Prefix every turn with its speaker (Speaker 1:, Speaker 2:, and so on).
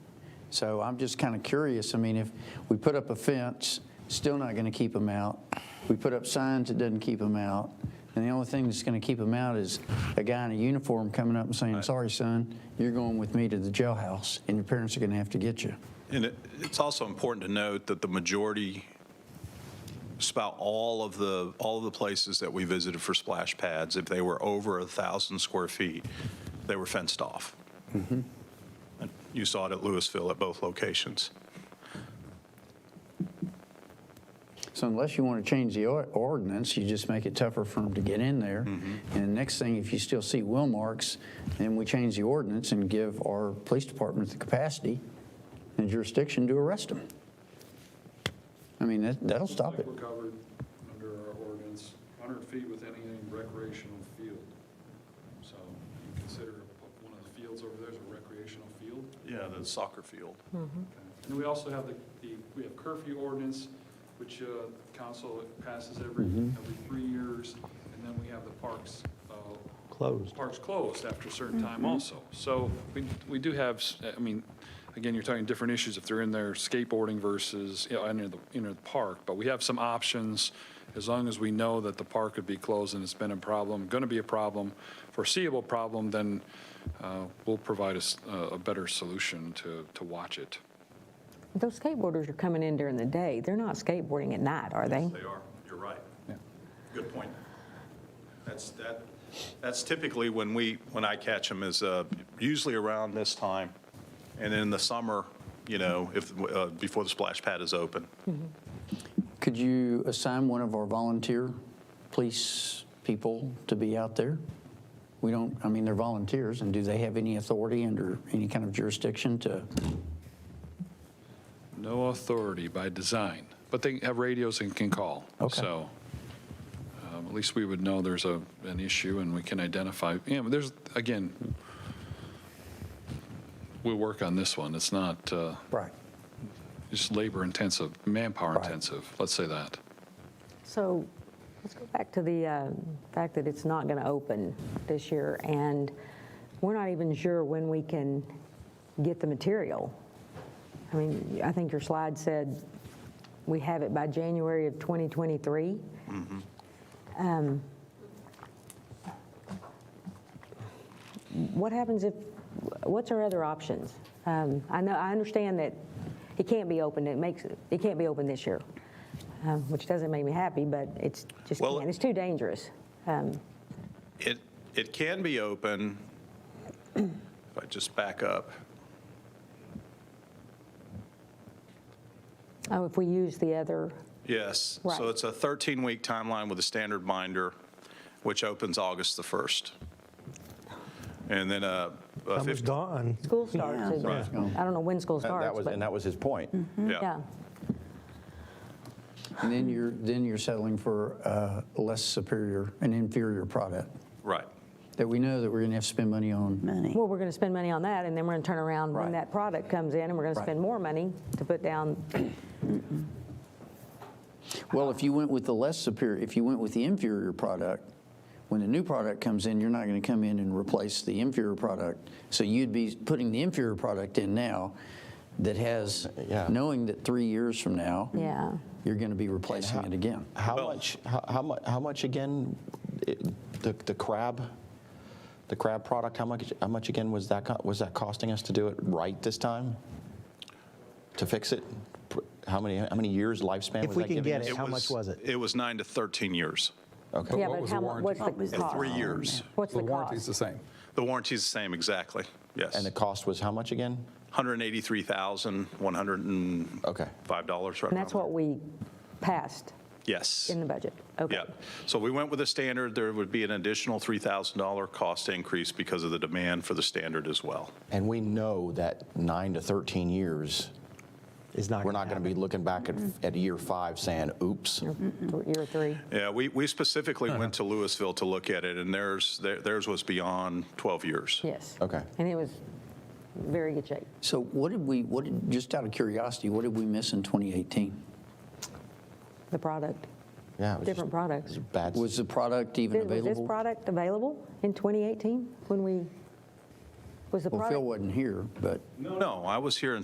Speaker 1: So I'm just kind of curious, I mean, if we put up a fence, still not going to keep them out. We put up signs, it doesn't keep them out. And the only thing that's going to keep them out is a guy in a uniform coming up and saying, sorry, son, you're going with me to the jailhouse, and your parents are going to have to get you.
Speaker 2: And it- it's also important to note that the majority, just about all of the, all of the places that we visited for splash pads, if they were over a 1,000 square feet, they were fenced off. And You saw it at Louisville at both locations.
Speaker 1: So unless you want to change the or- ordinance, you just make it tougher for them to get in there. And next thing, if you still see wheel marks, then we change the ordinance and give our police department the capacity and jurisdiction to arrest them. I mean, that, that'll stop it.
Speaker 3: Like we're covered under our ordinance, 100 feet with any recreational field. So you consider one of the fields over there is a recreational field.
Speaker 2: Yeah, the soccer field.
Speaker 3: And then we also have the, the we have curfew ordinance, which uh, council passes every, every three years. And then we have the parks. Closed. Parks closed after a certain time also. So we, we do have, s- I mean, again, you're talking different issues if they're in there skateboarding versus, you know, in the, in the park. But we have some options as long as we know that the park could be closed and it's been a problem, going to be a problem, foreseeable problem, then uh, we'll provide us uh, a better solution to, to watch it.
Speaker 4: Those skateboarders are coming in during the day. They're not skateboarding at night, are they?
Speaker 2: They are, you're right. Good point. That's, that, that's typically when we, when I catch them is uh, usually around this time. And in the summer, you know, if, uh, before the splash pad is open.
Speaker 1: Could you assign one of our volunteer police people to be out there? We don't, I mean, they're volunteers, and do they have any authority under any kind of jurisdiction to?
Speaker 3: No authority by design, but they have radios and can call.
Speaker 1: Okay.
Speaker 3: So um, at least we would know there's a, an issue and we can identify, you know, there's, again, we'll work on this one. It's not, uh,
Speaker 1: Right.
Speaker 3: it's labor intensive, manpower
Speaker 1: Right.
Speaker 3: intensive, let's say that.
Speaker 4: So let's go back to the uh, fact that it's not going to open this year, and we're not even sure when we can get the material. I mean, I think your slide said we have it by January of 2023.
Speaker 5: Mm-hmm.
Speaker 4: Um, What happens if, what's our other options? Um, I know, I understand that it can't be open, it makes, it can't be open this year, um, which doesn't make me happy, but it's just,
Speaker 2: Well-
Speaker 4: can't. it's too dangerous.
Speaker 2: It, it can be open, if I just back up,
Speaker 4: Oh, if we use the other,
Speaker 2: yes.
Speaker 4: Right.
Speaker 2: So it's a 13-week timeline with a standard binder, which opens August the 1st. And then a a
Speaker 6: That was
Speaker 2: 15
Speaker 6: Don.
Speaker 4: school starts, is-
Speaker 1: Right.
Speaker 4: I don't know when school
Speaker 5: That- That
Speaker 4: starts,
Speaker 5: was,
Speaker 4: but,
Speaker 5: and that was his point.
Speaker 6: Mm-hmm.
Speaker 4: yeah.
Speaker 1: And then you're, then you're settling for uh, a less superior, an inferior product
Speaker 2: Right.
Speaker 1: that we know that we're going to have to spend money on.
Speaker 7: money.
Speaker 4: Well, we're going to spend money on that, and then we're going to turn around when
Speaker 1: Right.
Speaker 4: that product comes in, and we're going to
Speaker 1: Right.
Speaker 4: spend more money to put down
Speaker 1: Well, if you went with the less superior, if you went with the inferior product, when the new product comes in, you're not going to come in and replace the inferior product. So you'd be putting the inferior product in now that has,
Speaker 5: Yeah.
Speaker 1: knowing that three years from now,
Speaker 4: Yeah.
Speaker 1: you're going to be replacing it again.
Speaker 5: How
Speaker 2: Well-
Speaker 5: much, how, how much, how much again, it- the, the crab, the crab product, how much, how much again was that, co- was that costing us to do it right this time? To fix it? Pr- How many, how many years lifespan
Speaker 6: If
Speaker 5: was
Speaker 6: we
Speaker 5: that
Speaker 6: can
Speaker 5: giving
Speaker 6: get
Speaker 5: us?
Speaker 6: How much was it?
Speaker 2: It was nine to 13 years.
Speaker 5: Okay.
Speaker 4: Yeah,
Speaker 8: what
Speaker 4: but
Speaker 8: was the
Speaker 4: how, mu-
Speaker 8: warranty?
Speaker 4: what's the
Speaker 7: What was the
Speaker 4: cost?
Speaker 2: Three years.
Speaker 4: What's the
Speaker 8: The warranty's
Speaker 4: cost?
Speaker 8: the same.
Speaker 2: The warranty's the same, exactly, yes.
Speaker 5: And the cost was how much again? Okay.
Speaker 2: $183,105.
Speaker 4: And that's what we passed
Speaker 2: Yes.
Speaker 4: in the budget. Okay.
Speaker 2: Yeah. So we went with a standard. There would be an additional $3,000 cost increase because of the demand for the standard as well.
Speaker 5: And we know that nine to 13 years,
Speaker 6: Is not.
Speaker 5: we're not going to be
Speaker 6: happen.
Speaker 5: looking back at, at year five saying, oops.
Speaker 4: Th- Year three.
Speaker 2: Yeah, we, we specifically
Speaker 6: Uh-huh.
Speaker 2: went to Louisville to look at it, and theirs, their- theirs was beyond 12 years.
Speaker 4: Yes.
Speaker 5: Okay.
Speaker 4: And it was very good shape.
Speaker 1: So what did we, what did, just out of curiosity, what did we miss in 2018?
Speaker 4: The product.
Speaker 5: Yeah. it was just-
Speaker 4: Different
Speaker 5: it
Speaker 4: products.
Speaker 5: was Bad.
Speaker 1: Was the product even
Speaker 4: Did- Was this
Speaker 1: available?
Speaker 4: product available in 2018 when we, was the
Speaker 1: Well,
Speaker 4: product?
Speaker 1: Phil wasn't here, but.
Speaker 2: No, I was here in